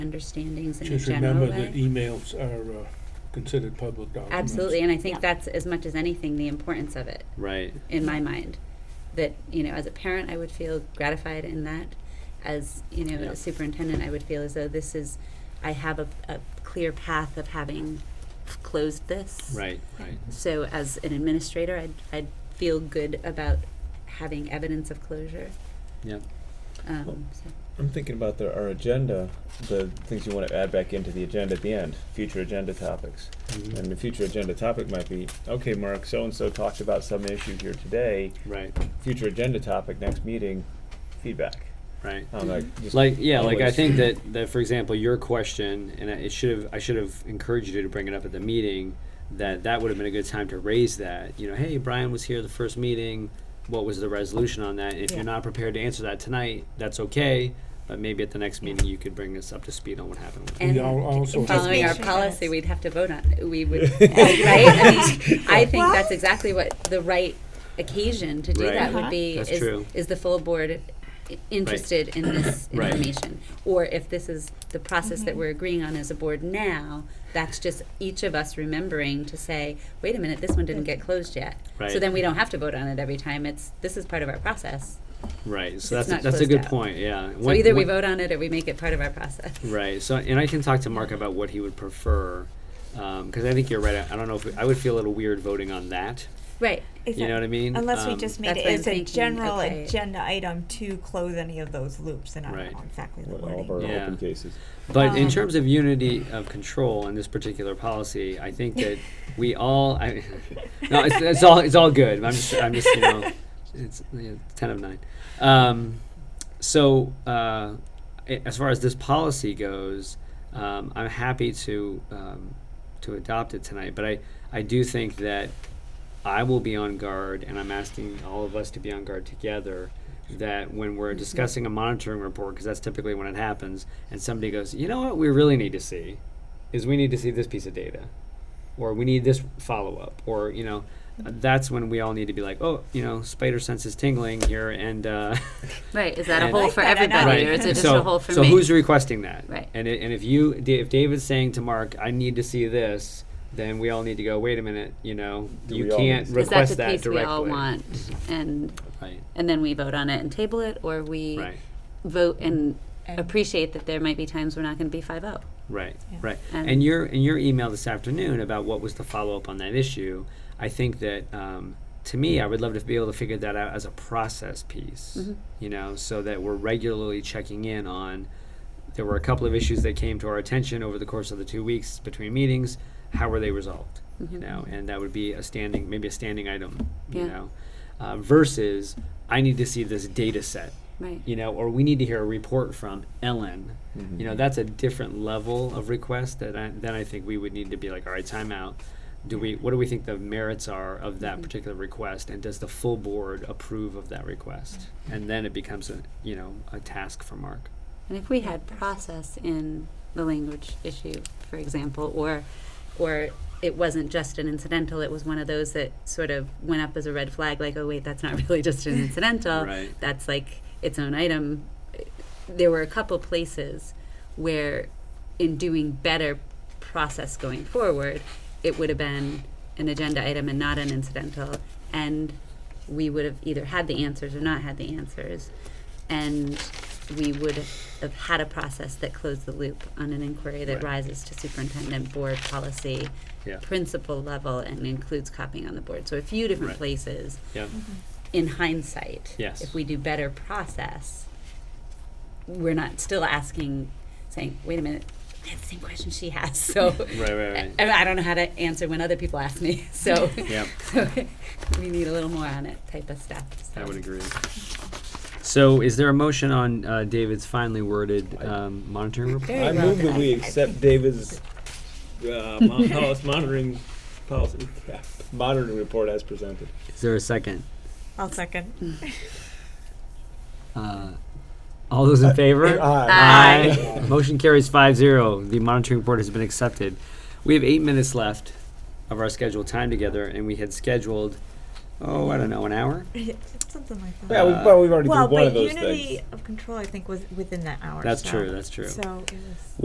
understandings in a Just general remember that way. emails are uh, considered public documents. Absolutely, and I think Yeah. that's as much as anything the importance of it Right. in my mind. That you know, as a parent, I would feel gratified in that. As you know, Yeah. a superintendent, I would feel as though this is, I have a, a clear path of having closed this. Right. Right. So as an administrator, I'd I'd feel good about having evidence of closure. Yep. Um, so. I'm thinking about the, our agenda, the things you want to add back into the agenda at the end, future agenda topics. Mm-hmm. And the future agenda topic might be, okay, Mark, so-and-so talked about some issue here today, Right. future agenda topic, next meeting, feedback. Right. I'm like, just Mm-hmm. Like yeah, like I always- think that that for example, your question and I- it should have I should have encouraged you to bring it up at the meeting that that would have been a good time to raise that. You know, hey, Brian was here the first meeting. What was the resolution on that? If Yeah. you're not prepared to answer that tonight, that's okay. But maybe at the next meeting you could bring us up to speed on what happened. With And We al- also Just following make our sure policy, that's- we'd have to vote on, we would, right? I mean, I think Well- that's exactly what the right occasion to do Right. that would Uh-huh. be, That's is, true. is the full board i- interested in this Right. information? Or if this is the process that we're agreeing on as a board now, that's just each of us remembering to say, wait a minute, this one didn't get closed yet. So Right. then we don't have to vote on it every time, it's, this is part of our process. Right. So It's that's not a, that's a good closed out. point. Yeah. So either we vote on it or we make it part of our process. Right. So, and I can talk to Mark about what he would prefer, because I think you're right. I, I don't know if I would feel a little weird voting on that. Right, You know what I mean? Unless we Um, just made That's it what I'm as a thinking, general okay. agenda item to close any of those loops, and I don't Right. know exactly the With All wording. of our Yeah. open cases. But in Um, terms of unity of control in this particular policy, I think that we all. I, no, it's, it's all it's all good. I'm just I'm just you know, it's yeah, ten of nine. Um, so uh, a- as far as this policy goes, um, I'm happy to um, to adopt it tonight. But I I do think that I will be on guard, and I'm asking all of us to be on guard together. That when we're discussing a monitoring report, because that's typically when it happens, and somebody goes, you know what, we really need to see is we need to see this piece of data, or we need this follow up, or you know, that's when we all need to be like, oh, you know, spider sense is tingling here, and uh, right, is that a And- hole Like for that, I know. everybody, or is it just so, a hole for me? so who's requesting that? Right. And it, and if you Da- if David's saying to Mark, I need to see this, then we all need to go. Wait a minute, you know, Do you we all can't need to see Is that request the piece we directly. all want? And, Right. and then we vote on it and table it, or we Right. vote and And- appreciate that there might be times we're not going to be oh. 5 0. Right, Yeah. right. And- And, your and your email this afternoon about what was the follow up on that issue, I think that um, to me, I would love to be able to figure that out as a process piece. You know, so that we're regularly checking in on. There were a couple of issues that came to our attention over the course of the two weeks between meetings. How were they resolved? You know, and that would be a standing, maybe a standing item. You Yeah. know, uh, versus I need to see this data set Right. you know, or we need to hear a report from Ellen. Mm-hmm. You know, that's a different level of request that I, then I think we would need to be like, all right, time out. Do we, what do we think the merits are of that particular request? And does the full board approve of that request? And then it becomes a, you know, a task for Mark. And if we had process in the language issue, for example, or, or it wasn't just an incidental, it was one of those that sort of went up as a red flag, like, oh, wait, that's not really just an incidental. Right. That's like its own item. There were a couple places where, in doing better process going forward, it would have been an agenda item and not an incidental. And we would have either had the answers or not had the answers. And we would have had a process that closed the loop on an inquiry that Right. rises to superintendent board policy Yeah. principal level and includes copying on the board. So a few different Right. places Yeah. in hindsight, Yes. if we do better process, we're not still asking, saying, wait a minute, I have the same question she has, so. Right, right, I- right. I, don't know how to answer when other people ask me, so. Yep. so We need a little more on it type of stuff, so. I would agree. So is there a motion on uh, David's finely worded I- um, monitoring report? Very I well move that done. we accept David's, uh, mon- policy monitoring, policy, monitoring report as presented. Is there a second? I'll second. Hmm. Uh, all those in favor? Aye. Aye. Motion carries five zero. The monitoring report has been accepted. We have eight minutes left of our scheduled time together, and we had scheduled, oh, I don't know, an hour? Something like that. Yeah, we, well, we've already well, did one but of those unity things. of control, I think, was within that hour. That's so- true, that's true. So it was.